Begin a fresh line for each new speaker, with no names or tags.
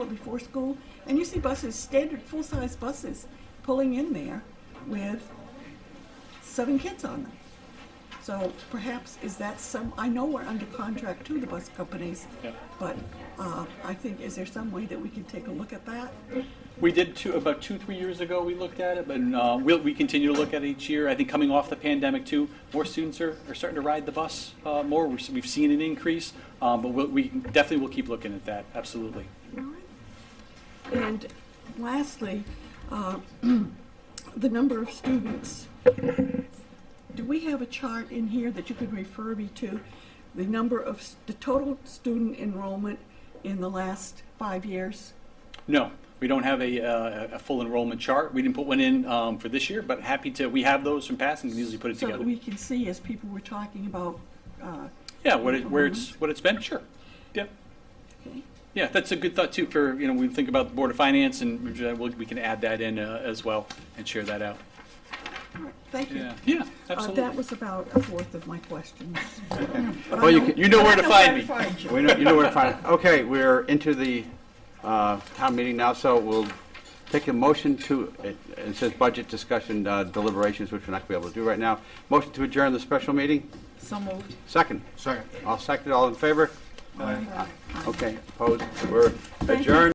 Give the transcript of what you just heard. before school, and you see buses, standard full-size buses, pulling in there with seven kids on them. So perhaps is that some, I know we're under contract to the bus companies,
Yeah.
but uh, I think, is there some way that we can take a look at that?
We did two, about two, three years ago, we looked at it, but uh, we'll, we continue to look at it each year. I think coming off the pandemic too, more students are, are starting to ride the bus uh, more. We're, we've seen an increase, um, but we'll, we definitely will keep looking at that, absolutely.
And lastly, uh, the number of students. Do we have a chart in here that you could refer me to? The number of, s- the total student enrollment in the last five years?
No, we don't have a, uh, a full enrollment chart. We didn't put one in um, for this year, but happy to, we have those from past and can easily put it
So that
together.
we can see as people were talking about, uh,
Yeah, what it,
Mhm.
where it's, what it's been, sure. Yeah.
okay,
Yeah, that's a good thought too for, you know, we think about the Board of Finance and uh, we'll- we can add that in uh, as well and share that out.
all right, thank you.
Yeah, yeah,
Uh,
absolutely.
That was about a fourth of my questions.
Well, you can-
You know where to find me.
We know, you know where to find it. Okay, we're into the uh, town meeting now, so we'll take a motion to, it it says budget discussion uh, deliberations, which we're not going to be able to do right now. Motion to adjourn the special meeting,
So moved.
second.
Second.
All seconded, all in favor? Okay, opposed, we're adjourned.